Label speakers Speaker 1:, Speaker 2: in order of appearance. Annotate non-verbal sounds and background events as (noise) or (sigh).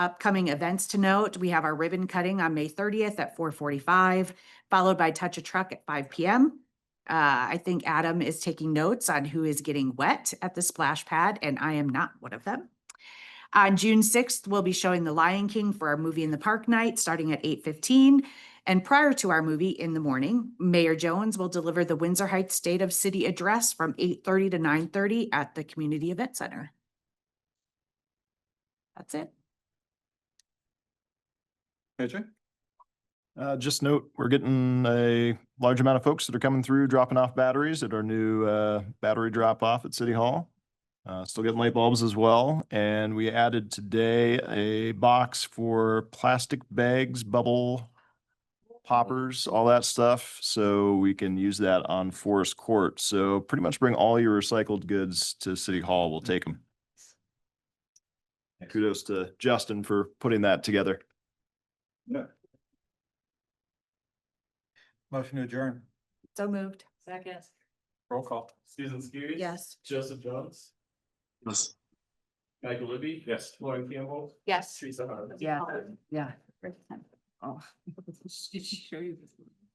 Speaker 1: Upcoming events to note, we have our ribbon cutting on May thirtieth at four forty-five, followed by Touch a Truck at five P M. Uh, I think Adam is taking notes on who is getting wet at the splash pad, and I am not one of them. On June sixth, we'll be showing The Lion King for our movie in the park night, starting at eight fifteen. And prior to our movie in the morning, Mayor Jones will deliver the Windsor Heights State of City Address from eight thirty to nine thirty at the Community Event Center. That's it.
Speaker 2: AJ?
Speaker 3: Uh, just note, we're getting a large amount of folks that are coming through, dropping off batteries at our new, uh, battery drop off at City Hall. Uh, still getting light bulbs as well. And we added today a box for plastic bags, bubble poppers, all that stuff. So we can use that on Forest Court. So pretty much bring all your recycled goods to City Hall. We'll take them. Kudos to Justin for putting that together.
Speaker 2: Motion to adjourn.
Speaker 1: So moved.
Speaker 4: Second.
Speaker 2: Roll call.
Speaker 5: Susan Skiris.
Speaker 1: Yes.
Speaker 5: Joseph Jones.
Speaker 3: Yes.
Speaker 5: Michael Libby.
Speaker 2: Yes.
Speaker 5: Lauren Campbell.
Speaker 4: Yes.
Speaker 5: Teresa Harms.
Speaker 1: Yeah. Yeah.
Speaker 4: First time. Oh. (laughs) She showed you this one.